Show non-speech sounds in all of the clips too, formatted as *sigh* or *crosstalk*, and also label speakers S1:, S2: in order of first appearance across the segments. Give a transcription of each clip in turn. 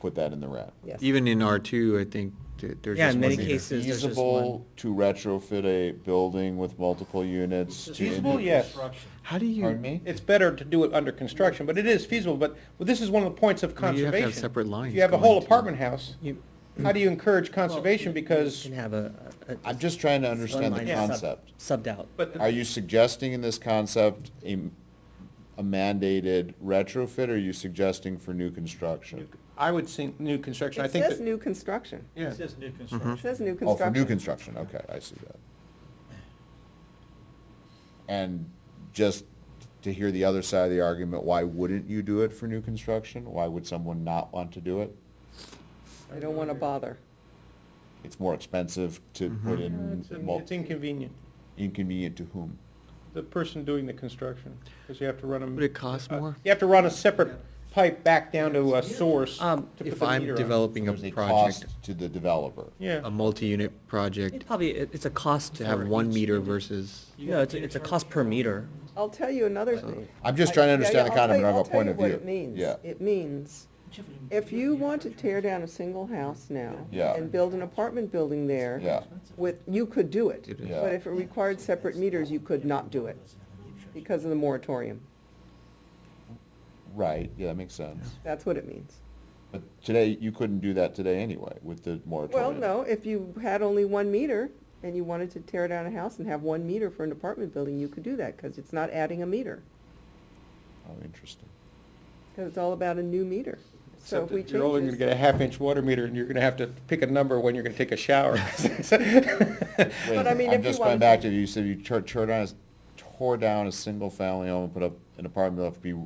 S1: put that in the red.
S2: Yes.
S3: Even in R2, I think that there's
S2: Yeah,
S3: just
S2: in
S3: one
S2: many
S3: meter.
S2: cases, there's just
S1: Feasible
S2: one.
S1: to retrofit a building with multiple units? to
S4: Feasible,
S1: indi-
S4: yes.
S3: How do you?
S1: Pardon me?
S4: It's better to do it under construction, but it is feasible, but well, this is one of the points of
S3: Well, you
S4: conservation.
S3: have to have separate lines
S4: If you have a whole
S3: going to-
S4: apartment house,
S2: You
S4: how do you encourage conservation? Because
S2: can have a. a- a-
S1: I'm just trying to understand the
S2: one line sub-
S1: concept.
S2: Subbed out.
S4: But the-
S1: Are you suggesting in this concept a a mandated retrofit, or are you suggesting for new construction?
S4: I would say new construction, I
S5: It
S4: think
S5: says
S4: that,
S5: new construction.
S4: yeah.
S6: This is new construction.
S5: It
S3: Mhm.
S5: says new
S1: Oh,
S5: construction.
S1: for new construction, okay, I see that. And just to hear the other side of the argument, why wouldn't you do it for new construction? Why would someone not want to do it?
S5: They don't want to bother.
S1: It's more expensive to
S2: Mm-hmm.
S1: put in,
S4: It's in-
S1: mul-
S4: it's inconvenient,
S1: inconvenient to whom?
S4: the person doing the construction, because you have to run them. uh,
S3: Would it cost
S1: Uh,
S3: more?
S4: You have to run a separate pipe back down to a source to
S2: Um,
S4: put the meter
S3: If I'm
S4: on.
S3: developing a
S1: uh, There's a cost
S3: project,
S1: to the developer.
S3: a
S4: Yeah,
S3: multi-unit project,
S2: It probably, it- it's a cost
S3: to have
S2: for
S3: one
S2: each-
S3: meter versus,
S2: No, it's, a- it's a cost per meter.
S5: I'll tell you another thing.
S1: I'm just trying to
S5: I- yeah,
S1: understand
S5: yeah,
S1: the
S5: I'll tell
S1: concept,
S5: you-
S1: but I have a
S5: I'll tell
S1: point
S5: you
S1: of
S5: what
S1: view.
S5: it means.
S1: Yeah.
S5: It means, if you want to tear down a single house now
S1: Yeah.
S5: and build an apartment building there
S1: Yeah,
S5: with, you could do it.
S3: It
S1: is.
S5: But if it required separate meters, you could not do it because of the moratorium.
S1: right, yeah, that makes sense.
S5: That's what it means.
S1: But today, you couldn't do that today anyway with the
S5: Well,
S1: moratorium.
S5: no, if you had only one meter and you wanted to tear down a house and have one meter for an apartment building, you could do that because it's not adding a meter.
S1: Oh, interesting.
S5: Because it's all about a new meter. So if
S4: except
S5: we
S4: that you're only
S5: change
S4: gonna
S5: this.
S4: get a half-inch water meter, and you're gonna have to pick a number when you're gonna take a shower.
S1: Wait a
S5: *laughs* But
S1: minute,
S5: I mean,
S1: I'm
S5: if you
S1: just going
S5: wanted
S1: back
S5: to-
S1: to, you said you tore, tore down, a- tore down a single-family home, and put up an apartment that would be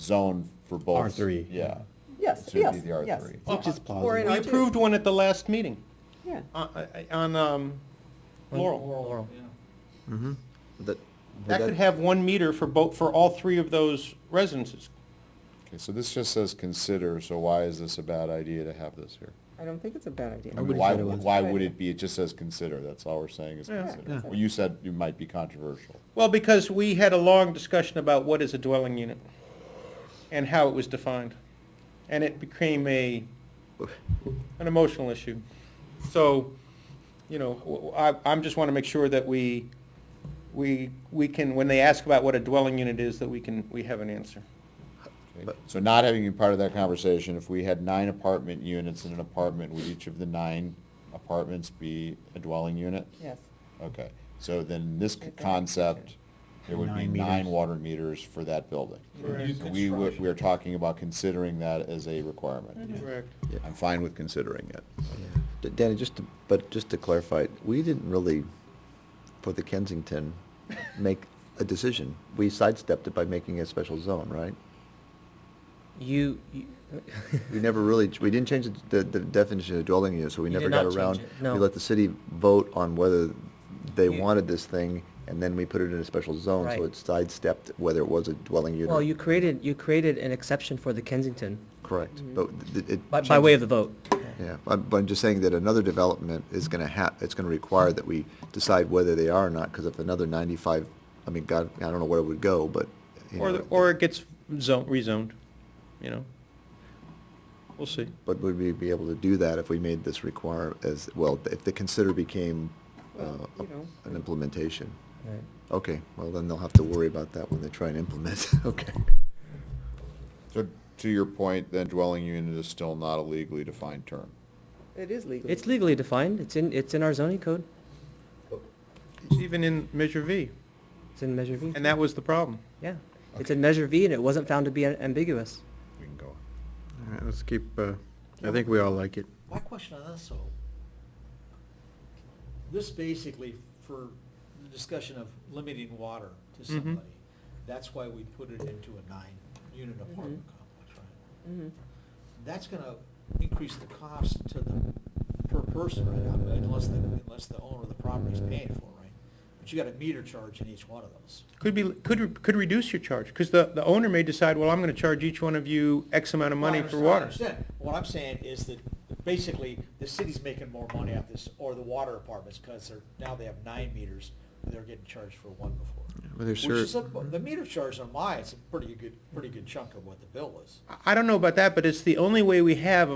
S1: zoned for both.
S7: R3.
S1: Yeah.
S5: Yes,
S1: Should be
S5: yes,
S1: the
S5: yes.
S1: R3.
S7: Which is
S5: Or in
S4: We
S5: R two,
S4: approved one at the last meeting,
S5: yeah.
S4: on, on, um, Laurel.
S2: Laurel.
S3: mhm.
S7: That
S4: That could have one meter for both, for all three of those residences.
S1: Okay, so this just says consider, so why is this a bad idea to have this here?
S5: I don't think it's a bad idea.
S1: I mean,
S7: wouldn't
S1: Why,
S7: say it was.
S1: why would it be, it just says consider, that's all we're saying is
S4: Yeah.
S1: consider.
S3: Yeah.
S1: Well, you said you might be controversial.
S4: Well, because we had a long discussion about what is a dwelling unit and how it was defined. And it became a, an emotional issue. So, you know, w- w- I, am just want to make sure that we, we, we can, when they ask about what a dwelling unit is, that we can, we have an answer.
S1: okay?
S7: But-
S1: So not having been part of that conversation, if we had nine apartment units in an apartment, would each of the nine apartments be a dwelling unit?
S5: Yes.
S1: Okay, so then this c-
S5: Okay.
S1: concept, there would be
S7: Nine
S1: nine
S7: meters.
S1: water meters for that building.
S4: Correct.
S1: So We, would- we are talking about considering that as a requirement.
S4: Correct.
S1: I'm fine with considering it.
S7: D- Danny, just to, but just to clarify, we didn't really, for the Kensington, make a decision. We sidestepped it by making a special zone, right?
S2: You,
S3: *laughs*
S2: you,
S7: We
S2: *laughs*
S7: never really, we didn't change the, the definition of dwelling unit, so we
S2: You
S7: never
S2: did
S7: got
S2: not change
S7: around.
S2: it, no.
S7: We let the city vote on whether they
S2: You-
S7: wanted this thing, and then we put it in a special zone,
S2: Right.
S7: so it sidestepped whether it was a dwelling unit.
S2: well,
S7: or-
S2: you created, you created an exception for the Kensington
S7: Correct,
S2: Mm-hmm.
S7: but th- it.
S2: by, by way of the vote.
S7: Yeah, I'm- but I'm just saying that another development is gonna ha, it's gonna require that we decide whether they are or not, because if another ninety-five, I mean, God, I don't know where it would go, but, you
S4: Or,
S7: know,
S4: the- or it gets zoned, rezoned, you know? We'll see.
S7: But would we be able to do that if we made this require as, well, if the consider became, uh,
S5: Well, you know.
S7: an implementation?
S2: Right.
S7: Okay, well, then they'll have to worry about that when they try and implement, *laughs* okay.
S1: So to your point, then dwelling unit is still not a legally defined term.
S5: It is legal.
S2: It's legally defined, it's in, it's in our zoning code,
S4: It's even in Measure V,
S2: it's in Measure V.
S4: and that was the problem.
S2: Yeah, it's in Measure V and it wasn't found to be a- ambiguous.
S1: We can go on.
S3: All right, let's keep, uh, I think we all like it.
S8: My question on this, though, this basically for the discussion of limiting water to
S2: Mm-hmm.
S4: Mhm.
S8: somebody, that's why we put it into a nine-unit apartment complex, right?
S5: Mhm.
S8: That's gonna increase the cost to the, per person, right, unless the, unless the owner of the property is paying for it, right? But you got a meter charge in each one of those.
S4: Could be, could, could reduce your charge, because the, the owner may decide, well, I'm gonna charge each one of you X amount of money for
S8: Well, I
S4: water.
S8: understand- I understand. What I'm saying is that basically the city's making more money off this, or the water apartments, because they're, now they have nine meters, and they're getting charged for one before.
S3: Well, there's
S8: Which is, a-
S3: cer-
S8: the meter charge on mine is a pretty good, pretty good chunk of what the bill is.
S4: I- I don't know about that, but it's the only way we have